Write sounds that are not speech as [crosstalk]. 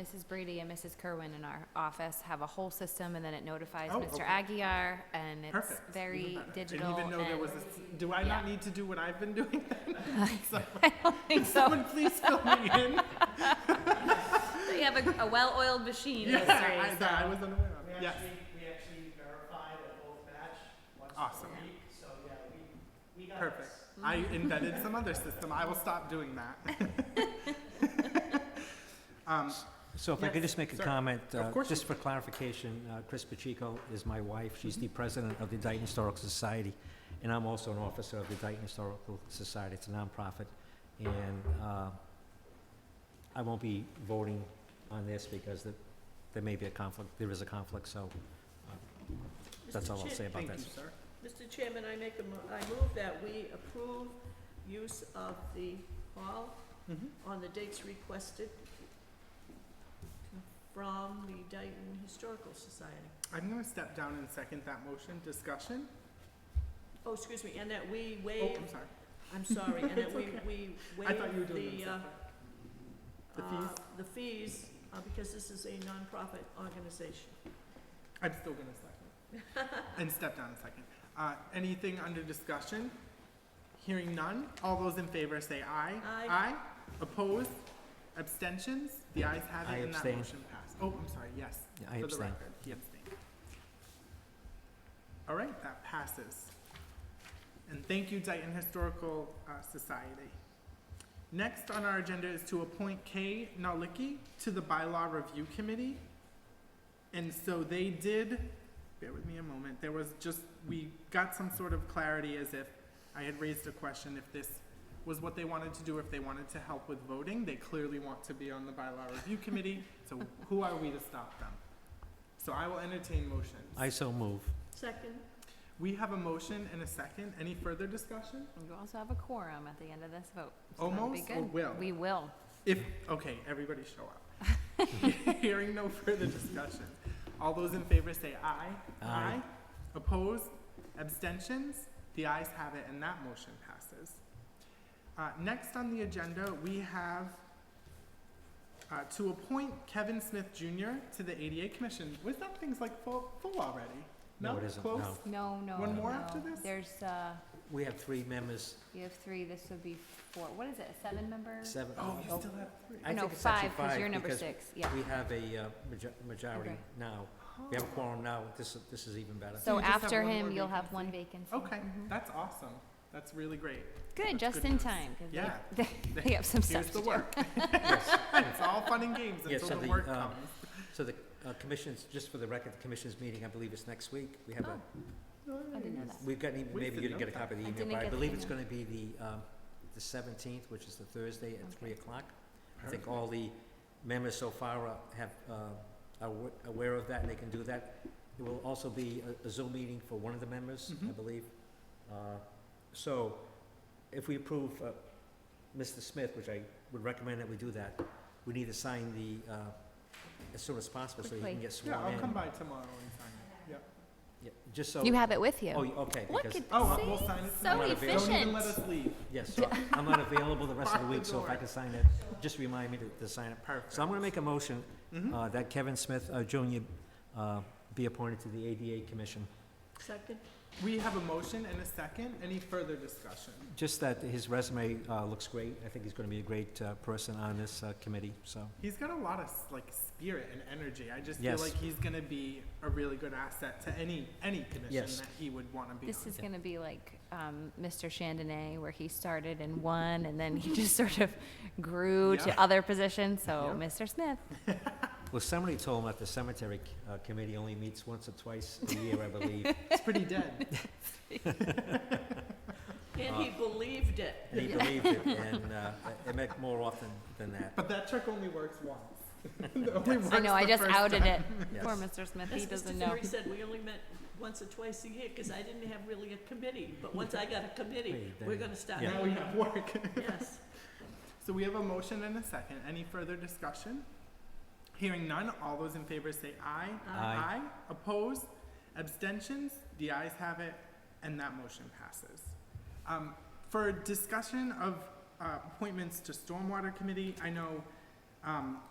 Mrs. Brady and Mrs. Kerwin in our office have a whole system, and then it notifies Oh, Mr. okay. Aguirre, and it's Perfect. very digital. Didn't even know there and- was a, do I not yeah. need to do what I've been [laughs] doing? So, I don't think [laughs] so. [laughs] Someone please fill [laughs] me in. You have a, a well-oiled machine, those Yeah, I- three, that I so. was unaware We of. Yes, actually, we actually verified at both batch once a Awesome. week, so yeah, we, we got this. perfect. I Mm-hmm. invented some other system. I will stop doing [laughs] that. [laughs] Um, So if I could Yes, just make a sir. comment, Of uh, course you just for clarification, uh, Chris Pacheco is my wife. She's Mm-hmm. the president of the Dayton Historical Society, and I'm also an officer of the Dayton Historical Society. It's a nonprofit, and uh, I won't be voting on this because there- there may be a conflict, there is a conflict, so that's all I'll say about Thank you, that. sir. Mr. Chairman, I make a, mo- I move that we approve use of the hall Mhm. on the dates requested from the Dayton Historical Society. I'm going to step down and second that motion. Discussion? Oh, excuse me, and that we Oh, waive, I'm sorry. I'm sorry, and that [laughs] we, It's okay. we I thought you were waive doing the, them separate. uh, The uh, fees? the fees, uh, because this is a nonprofit organization. I'm still gonna second. And step down a second. Uh, anything under discussion? Hearing none, all those in favor say aye. Aye. Aye, opposed, abstentions, the ayes have I it and that abstain. motion passed. Oh, I'm sorry, yes. Yeah, I For the abstain. record, he abstained. All right, that passes. And thank you, Dayton Historical, uh, Society. Next on our agenda is to appoint Kay Nalicki to the Bylaw Review Committee. And so they did, bear with me a moment, there was just, we got some sort of clarity as if I had raised a question if this was what they wanted to do, if they wanted to help with voting. They clearly want to be on the Bylaw Review Committee, so who are we to stop them? So I will entertain motions. I so move. Second, We have a motion and a second. Any further discussion? You also have a quorum at the end of this vote. so that'll be Almost or good. will? We will. If, okay, everybody show up. [laughs] Hearing no further discussion. All those in favor say aye. Aye. Opposed? Abstentions? The ayes have it, and that motion passes. Uh, next on the agenda, we have uh, to appoint Kevin Smith Jr. to the ADA Commission. Was that thing's like full, full already? No, it isn't, Close? no. No, no, One more no. after this? There's, uh, We have three members, you have three, this would be four, what is it, a seven-member? seven. Oh, you still have three. I No, think it's actually five, because you're number because six, yeah. We have a uh, majo- majority Okay. now. We have a quorum now. This, is- this is even better. So So you just have after one more him, you'll have one vacancy. Okay, Mm-hmm. Mhm. that's awesome. That's really great. Good, That's just good in news. time, because Yeah. they, [laughs] they have some stuff Here's to do. the [laughs] work. Yes. It's all fun and games Yeah, until so the the, work um, comes. So the uh, commissions, just for the record, the commission's meeting, I believe it's next week. We have a, I didn't know that. we've got, an e- We maybe should you didn't know get a copy Oh. of I the email, didn't but I get the believe it's email. gonna be the, um, the seventeenth, which is the Thursday at three o'clock. I think Perfect. all the members so far are- have, uh, are awa- aware of that and they can do that. There will also be a- a Zoom meeting for one of the members, I Mhm. believe. Uh, So if we approve uh, Mr. Smith, which I would recommend that we do that, we need to sign the, uh, as soon as possible so he Quickly. can get sworn Yeah, in. I'll come by tomorrow and sign it. Yep. Yeah, Just so. You have it with Oh, you. you- okay, Look because, at- Oh, See? we'll sign it. So tomorrow. Don't even efficient. let us leave. yes, so I'm not available [laughs] the rest of the Lock the week, so if I door. can sign it, just remind me to, to sign it. Perfect. So I'm gonna make a motion, Mhm. uh, that Kevin Smith, uh, Junior, uh, be appointed to the ADA Commission. second, We have a motion and a second. Any further discussion? Just that his resume, uh, looks great. I think he's gonna be a great, uh, person on this, uh, committee, so. He's got a lot of like spirit and energy. I just feel Yes. like he's gonna be a really good asset to any any commission Yes. that he would want to be This on. is gonna be like, um, Mr. Chandonay, where he started in one, and then he [laughs] just sort of grew Yeah. to other positions, so Yeah. Mr. Smith, Well, somebody told him that the cemetery, uh, committee only meets once or twice a year, I believe. It's pretty dead. [laughs] and Uh, he believed it. And he believed it, and, uh, it meant more often [laughs] than that, But that trick only works once. [laughs] It only I works know, I the just first outed it. time. [laughs] yes. Poor Mr. Smith, he As Mr. doesn't know. Ferry said, we only met once or twice a year, because I didn't have really a committee, but once I got a committee, Wait, we're then- gonna start. Yeah. Now we have work. Yes, So we have a motion and a second. Any further discussion? Hearing none, all those in favor say aye. Aye. Opposed? Abstentions? The ayes have it, and that motion passes. Um, for discussion of, uh, appointments to Stormwater Committee, I know, um,